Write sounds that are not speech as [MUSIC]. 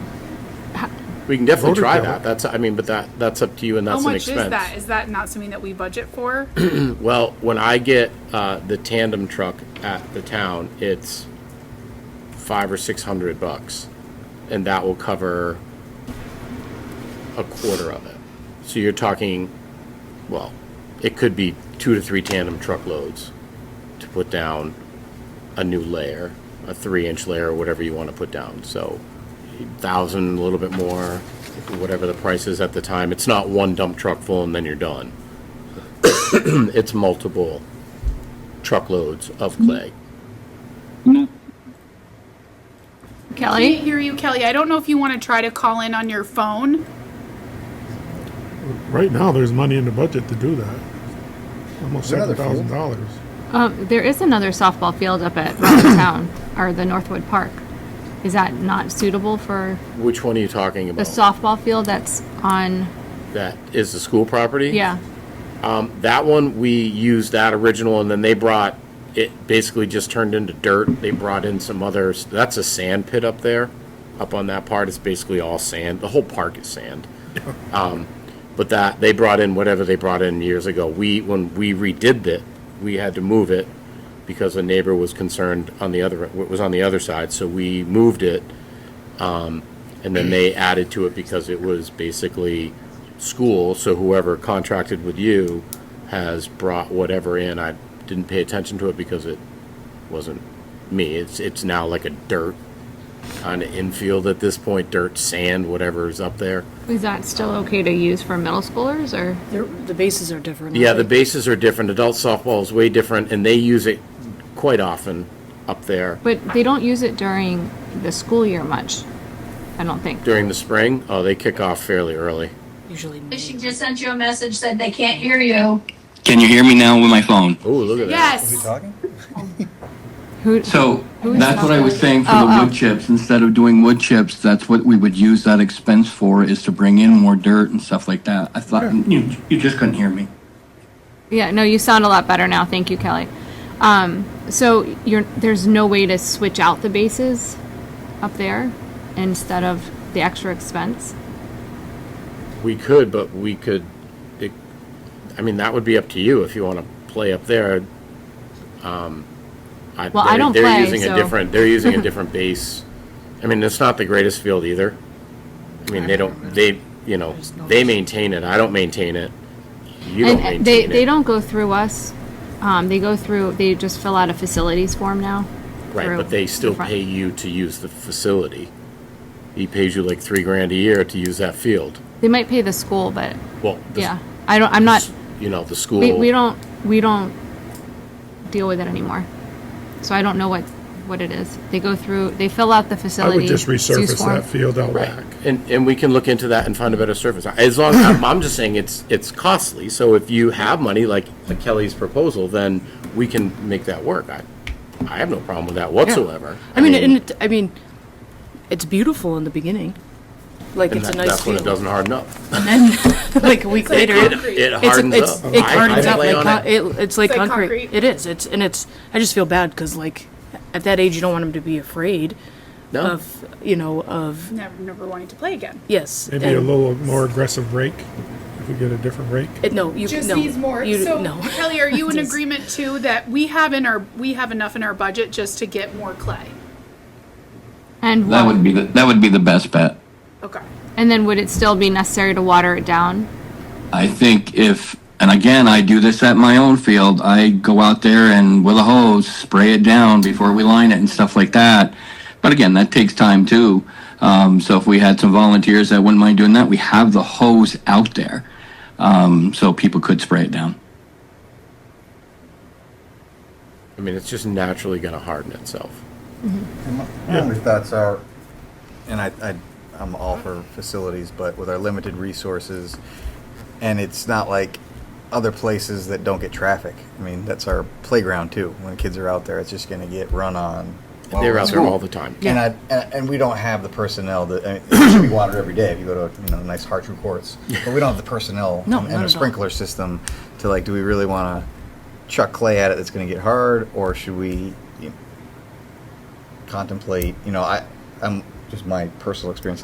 We can definitely Voter try count. that. That's, I mean, but that, that's up to you and How that's an much expense. is that? Is that not something that we budget [CLEARS THROAT] for? Well, when I get uh, the tandem truck at the town, it's five or six hundred bucks, and that will cover a quarter of it. So you're talking, well, it could be two to three tandem truckloads to put down a new layer, a three-inch layer, or whatever you want to put down. So thousand, a little bit more, whatever the price is at the time. It's not one dump truck full and then you're done it's multiple truckloads of Mm-hmm. clay. I can't hear you, Kelly. I don't know if you want to try to call in on your phone. Right now, there's money in the budget to do that. Almost seven Another thousand dollars. Um, there is another softball field up at Robert Town, or the Northwood Park. Is that not suitable for Which one are you talking the about? softball field that's on, That is the school property? yeah, That one, we used that original, and then they brought, it basically just turned into dirt. They brought in some others, that's a sand pit up there, up on that part, it's basically all sand, the whole park is [LAUGHS] sand. Um, But that, they brought in whatever they brought in years ago. We, when we redid it, we had to move it because a neighbor was concerned on the other, it was on the other side, so we moved it. And then they added to it because it was basically school, so whoever contracted with you has brought whatever in. I didn't pay attention to it because it wasn't me. It's, it's now like a dirt kind of infield at this point, dirt, sand, whatever is up there. is that still okay to use for middle schoolers, or? They're- The bases are different. Yeah, the bases are different. Adult softball is way different, and they use it quite often up there. But they don't use it during the school year much, I don't think. During the spring, oh, they kick off fairly early. Usually. She just sent you a message, said they can't hear you. Can you hear me now with my phone? Oh, look at that. Are we Yes. talking? [LAUGHS] Who, So is that's what I was saying for the wood chips. Instead of doing wood chips, that's what we would use that expense for is to bring in more dirt and stuff like that. I thought you, you just couldn't hear me. yeah, no, you sound a lot better now, thank you, Kelly. Um, so you're, there's no way to switch out the bases up there instead of the extra expense? We could, but we could, it, I mean, that would be up to you if you want to play up there. Um, I, Well, I they're- don't They're play, using a so- different, they're using [LAUGHS] a different base. I mean, it's not the greatest field either. I mean, they don't, they, you know, they maintain it. I don't maintain it. You don't maintain And uh, they, they it. don't go through us. Um, they go through, they just fill out a facilities form now. Right, through but they still the front. pay you to use the facility. He pays you like three grand a year to use that field. They might pay the school, but Well, the- yeah, I don't, I'm not, You know, the school. we, we don't, we don't deal with it anymore. So I don't know what, what it is. They go through, they fill out the I facility. would just use resurface form. that field out Right, back. and, and we can look into that and find a better service. As long, I'm, I'm just saying it's, it's costly, so if you have money, like Kelly's proposal, then we can make that work. I, I have no problem with that whatsoever. I mean, and it, I mean, it's beautiful in the beginning. Like And it's a that- nice that's when it field. doesn't harden up. [LAUGHS] And then, [LAUGHS] like a week later, It it's, it hardens it's, up. it I- I hardens up play like, on con- it. it, it's like like concrete. concrete. It is. It's, and it's, I just feel bad because like at that age, you don't want them to be afraid No, of, you know, of, Never, never wanting to play again. yes. Maybe a and- little more aggressive rake, if we get a different rake. it- No, you, Just no. needs more. You, so no. Kelly, are you in [LAUGHS] Just- agreement too that we have in our we have enough in our budget just to get more clay? And That what, would be the, that would be the best bet. Okay. and then would it still be necessary to water it down? I think if, and again, I do this at my own field, I go out there and with a hose, spray it down before we line it and stuff like that. But again, that takes time too. Um, so if we had some volunteers that wouldn't mind doing that, we have the hose out there. Um, so people could spray it down. I mean, it's just naturally gonna harden itself. And my- My only thoughts are, and I, I, I'm all for facilities, but with our limited resources, and it's not like other places that don't get traffic. I mean, that's our playground too. When kids are out there, it's just gonna get run on. while They're we're out at there all school. the time. And I, and, and we don't have the personnel that, I mean, [COUGHS] it should be watered every day if you go to, you know, a nice hard true courts. But we don't have the personnel No, not and at and all. a sprinkler system to like, do we really wanna chuck clay at it that's gonna get hard, or should we, you know, contemplate, you know, I, I'm, just my personal experience